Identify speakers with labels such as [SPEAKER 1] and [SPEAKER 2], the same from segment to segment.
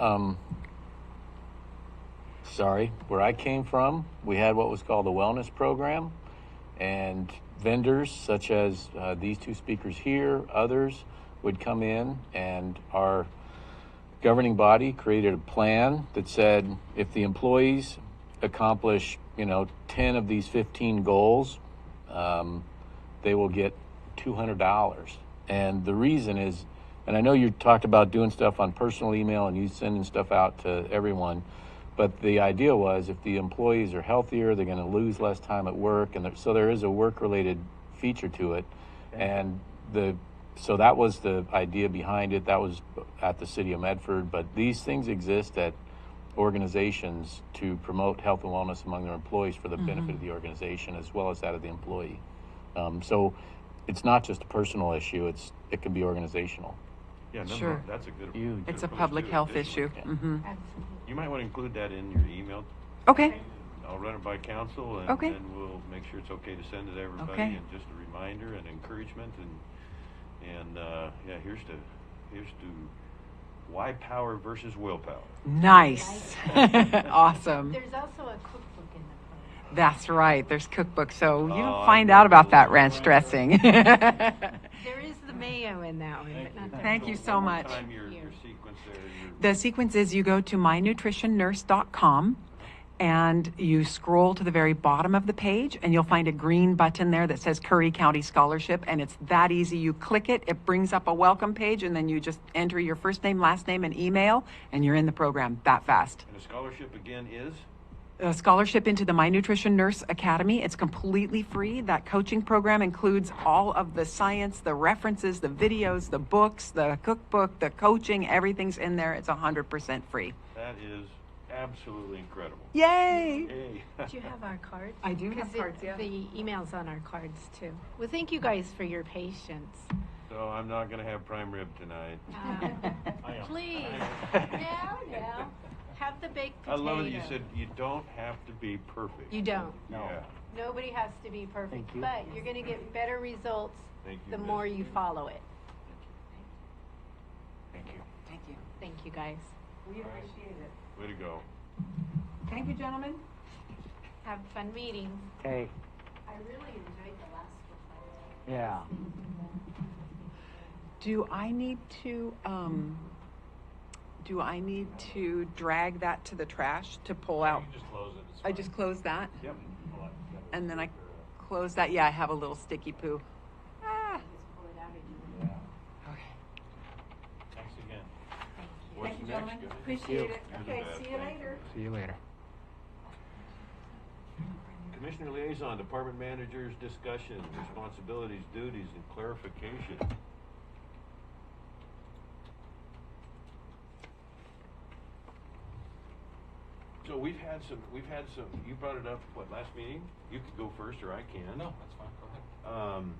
[SPEAKER 1] Um, sorry, where I came from, we had what was called a wellness program, and vendors such as uh, these two speakers here, others would come in, and our governing body created a plan that said if the employees accomplish, you know, 10 of these 15 goals, um, they will get $200. And the reason is, and I know you talked about doing stuff on personal email and you sending stuff out to everyone, but the idea was if the employees are healthier, they're going to lose less time at work, and there, so there is a work-related feature to it, and the so that was the idea behind it. That was at the city of Medford, but these things exist at organizations to promote health and wellness among their employees for the benefit of the organization as well as that of the employee. Um, so it's not just a personal issue; it's it can be organizational.
[SPEAKER 2] Yeah, no, no,
[SPEAKER 3] Sure.
[SPEAKER 2] that's a good.
[SPEAKER 1] Huge.
[SPEAKER 3] It's
[SPEAKER 2] good
[SPEAKER 3] a
[SPEAKER 2] approach
[SPEAKER 3] public
[SPEAKER 2] to it.
[SPEAKER 3] health
[SPEAKER 2] This is-
[SPEAKER 3] issue. Mhm.
[SPEAKER 2] You might want to include that in your email.
[SPEAKER 3] Okay,
[SPEAKER 2] I'll run it by council and
[SPEAKER 3] Okay.
[SPEAKER 2] then we'll make sure it's okay to send it to everybody.
[SPEAKER 3] Okay.
[SPEAKER 2] And just a reminder and encouragement and, and, uh, yeah, here's to, here's to why power versus willpower.
[SPEAKER 3] nice. Awesome.
[SPEAKER 4] There's also a cookbook in the program.
[SPEAKER 3] That's right, there's cookbooks, so you
[SPEAKER 2] Oh,
[SPEAKER 3] don't
[SPEAKER 2] I
[SPEAKER 3] find
[SPEAKER 2] know
[SPEAKER 3] out about that
[SPEAKER 2] those.
[SPEAKER 3] ranch dressing.
[SPEAKER 4] There is the mayo in that one, but not the.
[SPEAKER 3] Thank you so
[SPEAKER 2] One more
[SPEAKER 3] much.
[SPEAKER 2] Time your, your sequence there, your-
[SPEAKER 3] The sequence is you go to mynutritionnurse.com and you scroll to the very bottom of the page and you'll find a green button there that says Curry County Scholarship and it's that easy. You click it, it brings up a welcome page and then you just enter your first name, last name and email and you're in the program that fast.
[SPEAKER 2] and a scholarship again is?
[SPEAKER 3] a scholarship into the My Nutrition Nurse Academy. It's completely free. That coaching program includes all of the science, the references, the videos, the books, the cookbook, the coaching, everything's in there. It's 100% free.
[SPEAKER 2] That is absolutely incredible.
[SPEAKER 3] Yay!
[SPEAKER 2] Yay.
[SPEAKER 4] Do you have our cards?
[SPEAKER 3] I do have
[SPEAKER 4] 'Cause it-
[SPEAKER 3] cards, yeah.
[SPEAKER 4] The email's on our cards too. Well, thank you guys for your patience.
[SPEAKER 2] So I'm not gonna have prime rib tonight.
[SPEAKER 4] Um, Please, now, now, have the baked
[SPEAKER 2] I
[SPEAKER 4] potato.
[SPEAKER 2] love that you said you don't have to be perfect.
[SPEAKER 4] You don't.
[SPEAKER 2] Yeah.
[SPEAKER 4] Nobody has to be perfect, but you're gonna get better results
[SPEAKER 2] Thank you,
[SPEAKER 4] the
[SPEAKER 2] Miss.
[SPEAKER 4] more you follow it.
[SPEAKER 2] Thank you.
[SPEAKER 3] Thank you.
[SPEAKER 4] Thank you, guys.
[SPEAKER 3] We appreciate it.
[SPEAKER 2] Way to go.
[SPEAKER 3] Thank you, gentlemen.
[SPEAKER 4] Have fun meetings.
[SPEAKER 5] Okay,
[SPEAKER 4] I really enjoyed the last one.
[SPEAKER 5] yeah.
[SPEAKER 3] Do I need to, um, do I need to drag that to the trash to pull out?
[SPEAKER 2] just close it.
[SPEAKER 3] I just close that
[SPEAKER 2] Yep.
[SPEAKER 3] and then I close that. Yeah, I have a little sticky poo. Ah. Okay.
[SPEAKER 2] Thanks again.
[SPEAKER 3] Thank you, gentlemen. Appreciate it. Okay, see you later.
[SPEAKER 5] See you later.
[SPEAKER 2] Commissioner liaison, department managers, discussion, responsibilities, duties, and clarification. So we've had some, we've had some, you brought it up, what, last meeting? You could go first, or I can. No, that's fine, go ahead. Um,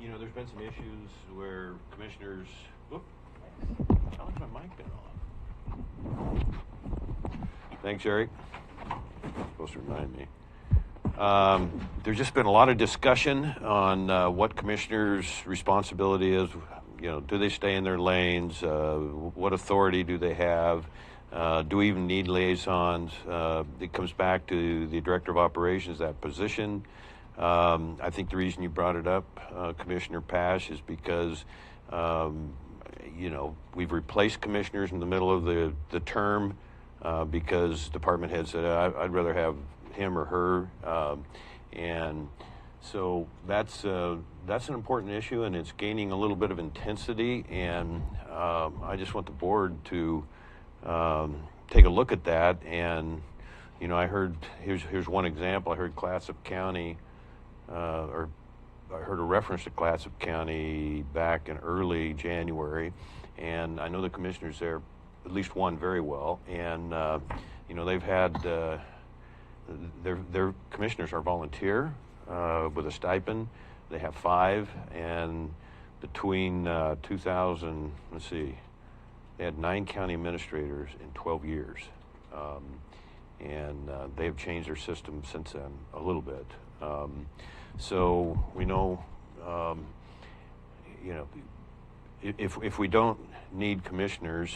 [SPEAKER 2] you know, there's been some issues where commissioners, whoop, how long's my mic been off? Thanks, Eric. Supposed to remind me. Um, there's just been a lot of discussion on uh, what commissioners' responsibility is. You know, do they stay in their lanes? Uh, what authority do they have? Uh, do we even need liaisons? Uh, it comes back to the director of operations, that position. Um, I think the reason you brought it up, uh, Commissioner Pash, is because um, you know, we've replaced commissioners in the middle of the, the term uh, because department heads said, I, I'd rather have him or her. Um, and so that's, uh, that's an important issue and it's gaining a little bit of intensity. And um, I just want the board to um, take a look at that. And, you know, I heard, here's, here's one example. I heard Clatsop County uh, or I heard a reference to Clatsop County back in early January, and I know the commissioners there, at least one very well, and uh, you know they've had uh, their their commissioners are volunteer uh, with a stipend. They have five, and between uh, 2000, let's see, they had nine county administrators in 12 years. Um, and uh, they've changed their system since then a little bit. Um, so we know, um, you know, i- if, if we don't need commissioners,